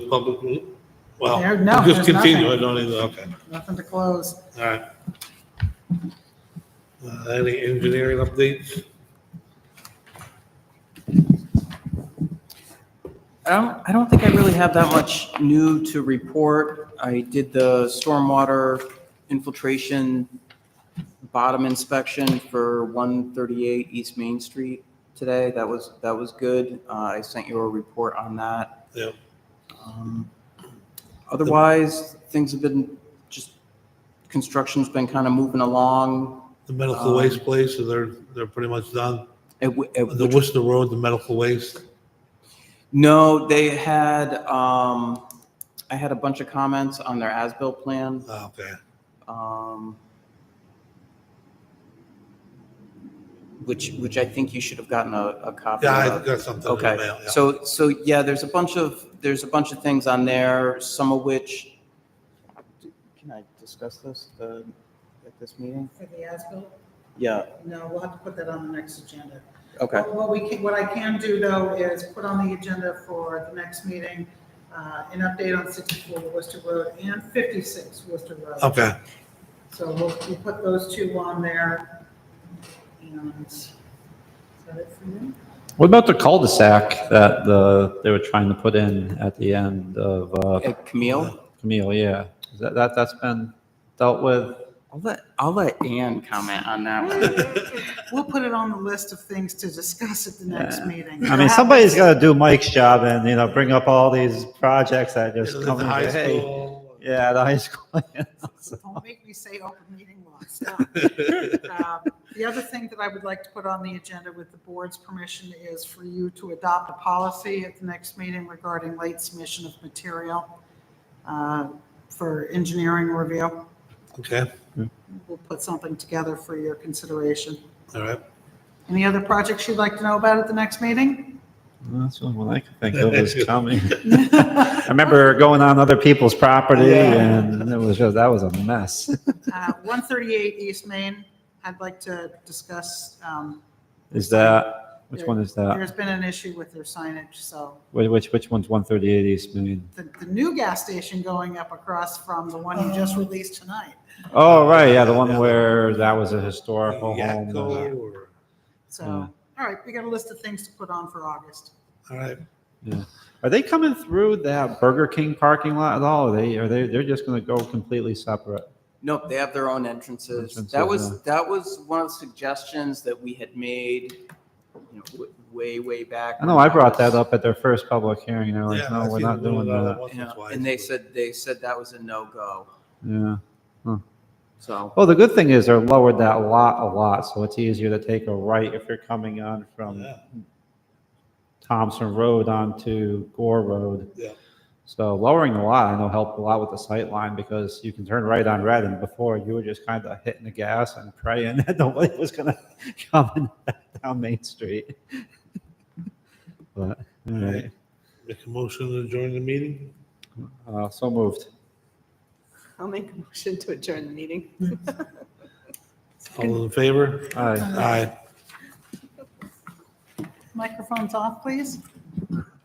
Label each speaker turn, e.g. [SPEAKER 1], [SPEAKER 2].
[SPEAKER 1] public, meet- well,
[SPEAKER 2] There- no,
[SPEAKER 1] just
[SPEAKER 2] there's nothing.
[SPEAKER 1] continue, I don't either, okay,
[SPEAKER 2] Nothing to close.
[SPEAKER 1] all right. Uh, Any engineering updates?
[SPEAKER 3] I don't, I don't think I really have that much new to report. I did the stormwater infiltration bottom inspection for 138 East Main Street today. That was, that was good. Uh, I sent you a report on that.
[SPEAKER 1] Yep.
[SPEAKER 3] Um, Otherwise, things have been, just, construction's been kind of moving along.
[SPEAKER 1] The medical
[SPEAKER 3] Um,
[SPEAKER 1] waste place, so they're, they're pretty much done.
[SPEAKER 3] At wh- at
[SPEAKER 1] The
[SPEAKER 3] which-
[SPEAKER 1] Worcester Road, the medical waste,
[SPEAKER 3] No, they had, um, I had a bunch of comments on their as-built plan.
[SPEAKER 1] oh, okay,
[SPEAKER 3] um, which which I think you should have gotten a, a copy
[SPEAKER 1] yeah, I
[SPEAKER 3] of.
[SPEAKER 1] got something in the
[SPEAKER 3] okay,
[SPEAKER 1] mail, yeah.
[SPEAKER 3] so so yeah, there's a bunch of there's a bunch of things on there. Some of which can I discuss this the, at this meeting?
[SPEAKER 2] For the as-built?
[SPEAKER 3] Yeah.
[SPEAKER 2] No, we'll have to put that on the next agenda.
[SPEAKER 3] Okay.
[SPEAKER 2] What we can, what I can do though is put on the agenda for the next meeting, uh, an update on sixty-four Worcester Road and fifty-six Worcester Road.
[SPEAKER 4] Oh.
[SPEAKER 1] Okay,
[SPEAKER 2] So we'll, we'll put those two on there. And is that it for you?
[SPEAKER 4] What about the cul-de-sac that the, they were trying to put in at the end of uh,
[SPEAKER 3] Uh, Camille,
[SPEAKER 4] Camille, yeah? Is That, that, that's been dealt with?
[SPEAKER 3] I'll let I'll let Ann comment on that one.
[SPEAKER 2] We'll put it on the list of things to discuss at the next
[SPEAKER 4] Yeah.
[SPEAKER 2] meeting.
[SPEAKER 4] I mean, somebody's gotta do Mike's job and, you know, bring up all these projects that
[SPEAKER 1] Is
[SPEAKER 4] just
[SPEAKER 1] it
[SPEAKER 4] come
[SPEAKER 1] the high
[SPEAKER 4] and say, hey.
[SPEAKER 1] school.
[SPEAKER 4] Yeah, the high school.
[SPEAKER 2] Don't make me say open meeting law, stop. Um, The other thing that I would like to put on the agenda with the board's permission is for you to adopt a policy at the next meeting regarding late submission of material uh, for engineering review.
[SPEAKER 1] Okay,
[SPEAKER 2] We'll put something together for your consideration.
[SPEAKER 1] all right,
[SPEAKER 2] Any other projects you'd like to know about at the next meeting?
[SPEAKER 4] That's the only one I can think of is coming. I remember going on other people's property and it was just, that was a mess.
[SPEAKER 2] Uh, 138 East Main, I'd like to discuss, um,
[SPEAKER 4] Is that, which one is that?
[SPEAKER 2] there's been an issue with their signage, so
[SPEAKER 4] Wh- Which, which one's 138 East Main?
[SPEAKER 2] the, the new gas station going up across from the one you just released tonight.
[SPEAKER 1] Uh,
[SPEAKER 4] Oh, right, yeah, the one where that was a historical home.
[SPEAKER 1] Yakko or,
[SPEAKER 2] So,
[SPEAKER 4] Yeah.
[SPEAKER 2] all right, we got a list of things to put on for August.
[SPEAKER 1] all right,
[SPEAKER 4] Are they coming through that Burger King parking lot at all? Are they, are they, they're just gonna go completely separate?
[SPEAKER 3] Nope, they have their own entrances. That
[SPEAKER 4] Entrances,
[SPEAKER 3] was,
[SPEAKER 4] yeah.
[SPEAKER 3] that was one of the suggestions that we had made, you know, w- way, way back.
[SPEAKER 4] I know I brought that up at their first public hearing, and they're
[SPEAKER 1] Yeah,
[SPEAKER 4] like, no,
[SPEAKER 1] I've
[SPEAKER 4] we're
[SPEAKER 1] seen
[SPEAKER 4] not
[SPEAKER 1] them
[SPEAKER 4] doing
[SPEAKER 1] about it
[SPEAKER 4] that.
[SPEAKER 1] once or
[SPEAKER 3] Yeah,
[SPEAKER 1] twice,
[SPEAKER 3] And they
[SPEAKER 1] but-
[SPEAKER 3] said, they said that was a no-go,
[SPEAKER 4] Yeah.
[SPEAKER 3] so.
[SPEAKER 4] Well, the good thing is they're lowered that lot a lot, so it's easier to take a right if you're coming on from
[SPEAKER 1] Yeah.
[SPEAKER 4] Thompson Road onto Gore Road.
[SPEAKER 1] Yeah.
[SPEAKER 4] So lowering the lot, I know helped a lot with the sight line because you can turn right on red and before you were just kind of hitting the gas and praying that nobody was gonna come down Main Street. But, all right,
[SPEAKER 1] Make a motion to join the meeting?
[SPEAKER 4] uh, so moved.
[SPEAKER 5] I'll make a motion to adjourn the meeting.
[SPEAKER 1] All in favor?
[SPEAKER 4] Aye.
[SPEAKER 1] Aye.
[SPEAKER 2] Microphones off, please.